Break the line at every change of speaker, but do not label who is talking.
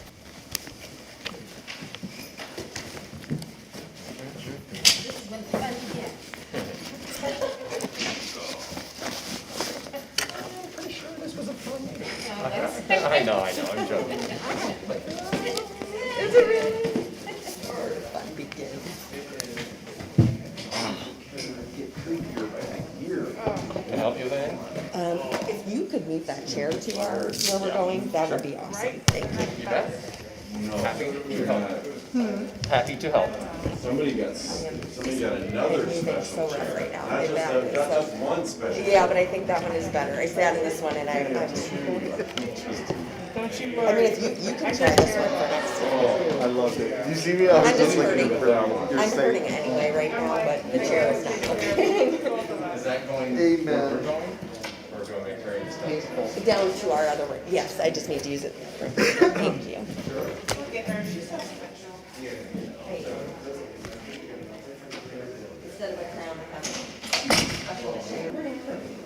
I know, I know, I'm joking. Can I help you with anything?
Um, if you could move that chair to our, where we're going, that would be awesome. Thank you.
You bet. Happy to help. Happy to help.
Uh, Somebody got, s- somebody got another
Maybe they're so
special
rough
chair.
right now.
Not
They
just,
back
a-
it,
not
so-
just one special.
Yeah, but I think that one is better. I sat in this one and I, I,
Don't you
I mean,
worry.
if you, you can try this one for next time.
Oh, I loved it. You see me, I
I'm just
looking
hurting.
at that one.
I'm hurting anyway right now, but the chair is not helping.
Is that going?
Amen.
where We're going? We're going to carry this down.
Down to our other, room. yes, I just need to use it. Thank you. Instead of a crown, I have.